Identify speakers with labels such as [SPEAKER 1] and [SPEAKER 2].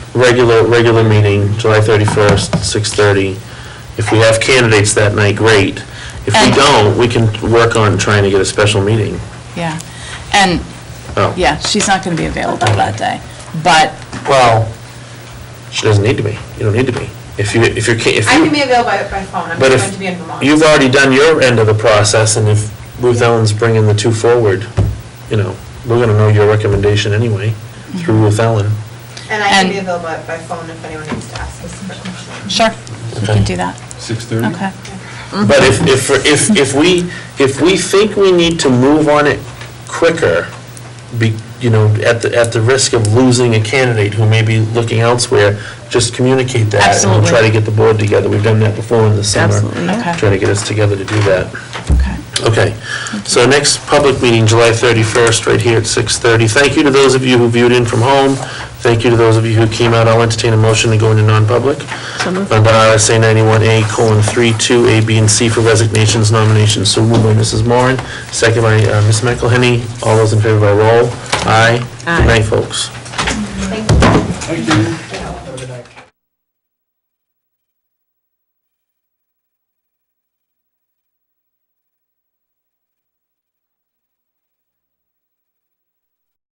[SPEAKER 1] regular, regular meeting, July 31st, 6:30. If we have candidates that night, great. If we
[SPEAKER 2] And-
[SPEAKER 1] don't, we can work on trying to get a special meeting.
[SPEAKER 2] Yeah, and,
[SPEAKER 1] Oh,
[SPEAKER 2] yeah, she's not going to be available that day, but,
[SPEAKER 1] well, she doesn't need to be. You don't need to be. If you, if you're, ca- if
[SPEAKER 3] I can be
[SPEAKER 1] you,
[SPEAKER 3] available by, by phone, I'm
[SPEAKER 1] but
[SPEAKER 3] going to be in Vermont.
[SPEAKER 1] if, you've already done your end of the process, and if Ruth Ellen's bringing the two forward, you know, we're going to know your recommendation anyway, through Ruth Ellen.
[SPEAKER 3] And I can be
[SPEAKER 2] and-
[SPEAKER 3] available by- by phone if anyone needs to ask us a question.
[SPEAKER 2] sure, we
[SPEAKER 1] Okay.
[SPEAKER 2] can do that.
[SPEAKER 4] 6:30?
[SPEAKER 2] Okay.
[SPEAKER 1] But if, if, if, if we, if we think we need to move on it quicker, be, you know, at the, at the risk of losing a candidate who may be looking elsewhere, just communicate that. And
[SPEAKER 2] Absolutely.
[SPEAKER 1] we'll try to get the board together. We've done that before in the summer.
[SPEAKER 5] Absolutely, yeah.
[SPEAKER 2] Okay.
[SPEAKER 1] Try to get us together to do that.
[SPEAKER 2] Okay.
[SPEAKER 1] Okay. So next public meeting, July 31st, right here at 6:30. Thank you to those of you who viewed in from home. Thank you to those of you who came out. I'll entertain a motion to go into non-public
[SPEAKER 5] So moved.
[SPEAKER 1] under RSA 91A colon 3, 2, A, B, and C for resignations, nominations. So moved by Mrs. Moran, second by uh, Ms. McElhenney. All those in favor by roll. Aye.
[SPEAKER 5] Aye.
[SPEAKER 1] Good night, folks.
[SPEAKER 3] Thank you.